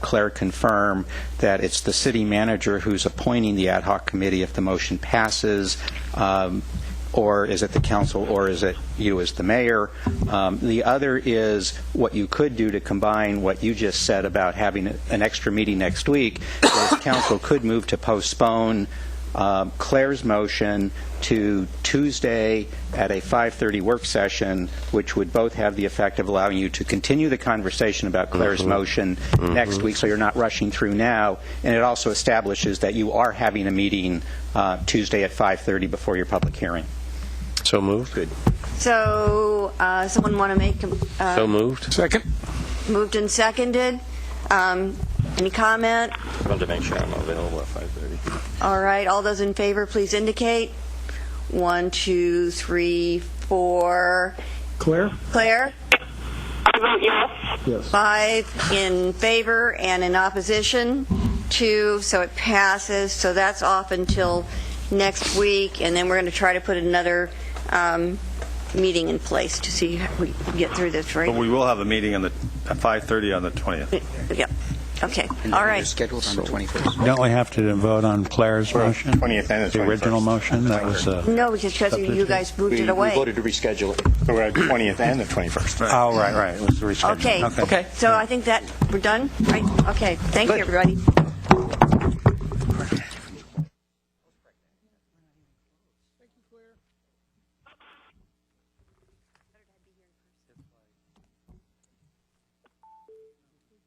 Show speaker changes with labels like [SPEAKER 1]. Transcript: [SPEAKER 1] Claire confirm that it's the city manager who's appointing the ad hoc committee if the motion passes, um, or is it the council, or is it you as the mayor? Um, The other is what you could do to combine what you just said about having an extra meeting next week, is council could move to postpone um, Claire's motion to Tuesday at a 5:30 work session, which would both have the effect of allowing you to continue the conversation about Claire's motion next week, so you're not rushing through now, and it also establishes that you are having a meeting uh, Tuesday at 5:30 before your public hearing.
[SPEAKER 2] So moved. Good.
[SPEAKER 3] So, uh, someone want to make, uh,
[SPEAKER 2] So moved.
[SPEAKER 4] Second?
[SPEAKER 3] moved and seconded? Um, Any comment?
[SPEAKER 5] Wanted to make sure I'm available at 5:30.
[SPEAKER 3] All right, all those in favor, please indicate. One, two, three, four.
[SPEAKER 4] Claire?
[SPEAKER 3] Claire?
[SPEAKER 6] I vote yes.
[SPEAKER 4] Yes.
[SPEAKER 3] Five in favor and in opposition, two, so it passes. So that's off until next week, and then we're going to try to put another um, meeting in place to see how we get through this,
[SPEAKER 7] But
[SPEAKER 3] right?
[SPEAKER 7] we will have a meeting on the, at 5:30 on the 20th.
[SPEAKER 3] Yep, okay, all right.
[SPEAKER 1] scheduled on the 21st.
[SPEAKER 8] Don't we have to vote on Claire's motion?
[SPEAKER 7] 20th and the
[SPEAKER 8] The original
[SPEAKER 7] 21st.
[SPEAKER 8] motion, that was, uh,
[SPEAKER 3] No, because you guys moved it away.
[SPEAKER 1] to reschedule it.
[SPEAKER 7] We're at 20th and the 21st.
[SPEAKER 8] oh, right, right, it was the rescheduling.
[SPEAKER 3] Okay. So I think that, we're done, right? Okay, thank you, everybody.